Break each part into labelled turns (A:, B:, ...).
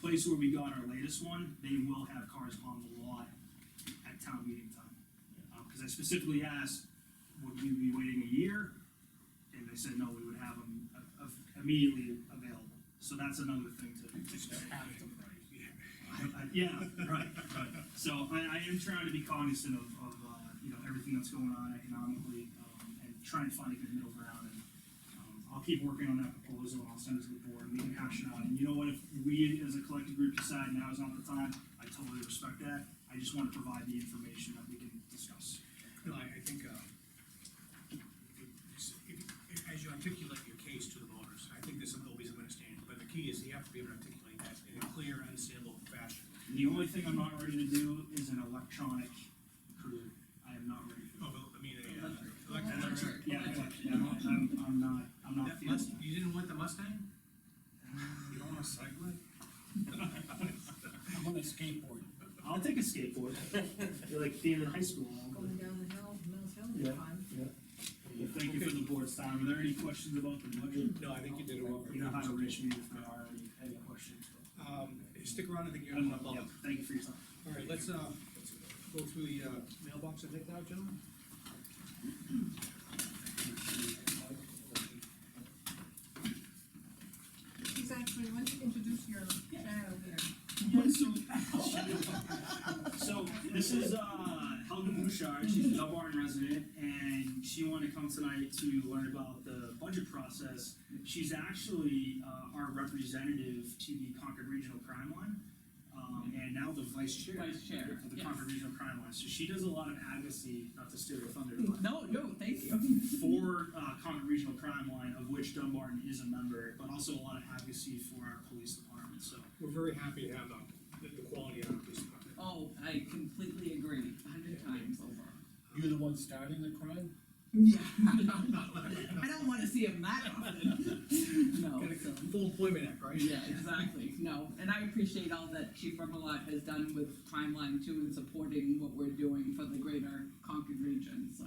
A: place where we got our latest one, they will have cars on the lot at town meeting time. Um, cause I specifically asked, would we be waiting a year? And they said, no, we would have them a- a- immediately available, so that's another thing to.
B: have them right.
A: I- I- Yeah, right, right, so I, I am trying to be cognizant of, of, uh, you know, everything that's going on economically, um, and trying to find a good middle ground, and, um, I'll keep working on that proposal, I'll send it to the board, and we can hash it out, and you know what, if we as a collective group decide now is not the time, I totally respect that, I just wanna provide the information that we can discuss.
B: No, I, I think, uh, it's- if- if- as you articulate your case to the voters, I think there's some, there'll be some understanding, but the key is you have to be able to articulate that in a clear, understandable fashion.
A: And the only thing I'm not ready to do is an electronic crew, I am not ready.
B: Oh, but, I mean, a, uh,
C: Electric.
B: electric.
A: Yeah, electric, yeah, I'm, I'm not, I'm not
B: That must,
A: feeling
B: you didn't want the Mustang?
D: You don't wanna cycle it?
E: I'm on a skateboard.
A: that. I'll take a skateboard, like being in high school, I'll go.
C: Going down the hill, Mills Hill,
A: Yeah.
C: it's fine.
A: Well, thank you for the board's time. Are there any questions about the budget?
B: No, I think you did it well.
A: You know how to reach me if there are any, any questions. but-
B: Um, stick around, I think you're
A: Um,
B: on the bubble.
A: yeah, Thank you for your time.
B: All right, let's, uh, go through the, uh, mailbox, I think now, gentlemen.
C: He's actually, why don't you introduce your child there?
A: Yeah, so. So, this is, uh, Helga Bouchard, she's a Dubarton resident, and she wanted to come tonight to learn about the budget process. She's actually, uh, our representative to the Concord Regional Crime Line, um, and now the vice chair.
F: Vice chair,
A: Of the
F: yes.
A: Concord Regional Crime Line, so she does a lot of advocacy, not to steal your thunder, but
F: No, no, thank you.
A: for uh, Concord Regional Crime Line, of which Dunbarton is a member, but also a lot of advocacy for our police department. So
B: We're very happy to have, uh, the, the quality of this department.
F: Oh, I completely agree, a hundred times over.
E: You're the one starting the crime?
F: Yeah.
B: uh,
F: I don't wanna see him that often. No,
B: Gotta
F: so,
B: go. Full employment act, right?
F: yeah, exactly, no, and I appreciate all that Chief Remillard has done with Crime Line too and supporting what we're doing for the greater Concord region, so.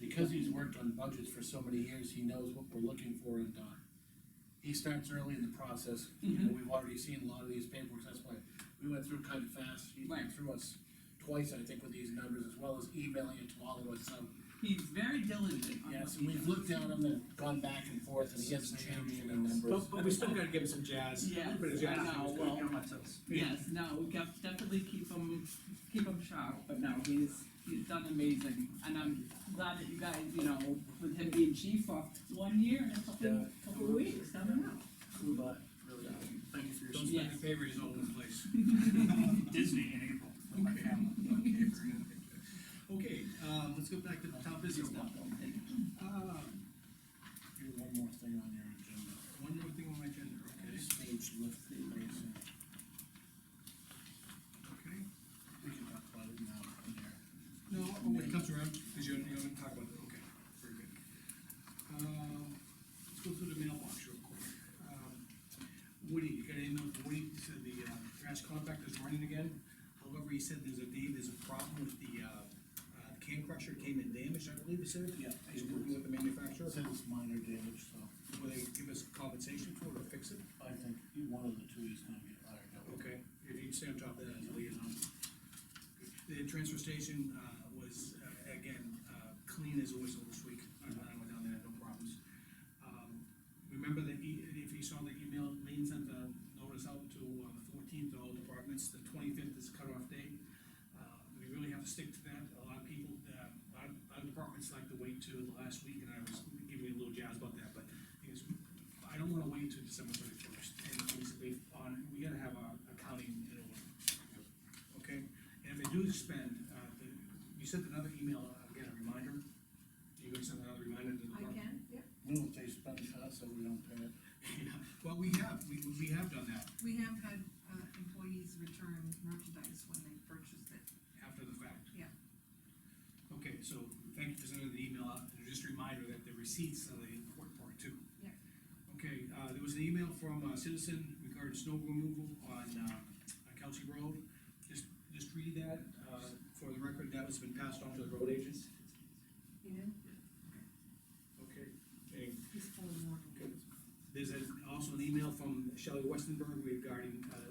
E: Because he's worked on budgets for so many years, he knows what we're looking for and, uh, he starts early in the process. You know, we've already seen a lot of these paperwork, that's why we went through kind of fast. He went
F: Right.
E: through us twice, I think, with these numbers, as well as emailing it to all of us, so.
F: He's very diligent on what
E: Yes,
F: he
E: and we've
F: does.
E: looked at them and gone back and forth, and he hasn't changed any numbers.
B: But, but we still gotta give it some jazz.
F: Yes,
B: But it's jazz.
F: I know,
A: Gotta
F: well,
A: get on my toes.
F: Yes, no, we got, definitely keep him, keep him sharp, but no, he's, he's done amazing, and I'm glad that you guys, you know, with him being chief for one year and a couple,
E: Yeah.
F: couple of weeks, I don't know.
A: Flew by, really. um, Thank you for your
B: Don't
A: support.
B: spend your favors all over the place.
A: Disney in April. with my family.
B: Okay, um, let's go back to the top business now. Uh,
E: Here's one more thing on your agenda.
B: one more thing on my agenda, okay,
E: This page lift, raising.
B: okay?
E: we can talk about it now in there.
B: No, oh, when it comes around, because you're, you're gonna talk about it, okay, very good. Um, let's go through the mailbox real quick. Um, Woody, you got an email from Woody, he said the, uh, trash compactor's running again, however, he said there's a, day there's a problem with the, uh, uh, can crusher came in damaged, I believe he said.
E: Yeah.
B: He's working with the manufacturer,
E: Says it's minor damage, so
B: will they give us compensation for it or fix it?
E: I think one of the two is gonna get fired out.
B: Okay, if you stay on top of that as a liaison. The transfer station, uh, was, uh, again, uh, clean as a whistle this week, I I went down there, no problems. Um, Remember that, e- if you saw the email, Lean sent the notice out to, uh, the fourteenth, all departments, the twenty-fifth is cutoff date. Uh, We really have to stick to that, a lot of people, uh, a lot, a lot of departments like to wait till the last week, and I was giving you a little jazz about that, but is, I don't wanna wait till December thirty-first, and basically, on, we gotta have our accounting in order. Okay, and if they do spend, uh, the, you sent another email, uh, again, a reminder, you gonna send another reminder to the
C: I
B: department?
C: can, yeah.
E: No, if they spend it us, so we don't pay it.
B: Yeah, Well, we have, we, we have done that
C: We have had, uh, employees return merchandise when they purchased it.
B: after the fact.
C: Yeah.
B: Okay, so, thank you for sending the email out, and just a reminder that the receipts are the important part too.
C: Yeah.
B: Okay, uh, there was an email from a citizen regarding snow removal on, uh, on Kelsey Road. Just, just read that, uh, for the record, that has been passed on to the road agents.
C: You know,
B: Okay. And
C: he's full of water.
B: There's a- also an email from Shelley Westenberg regarding uh,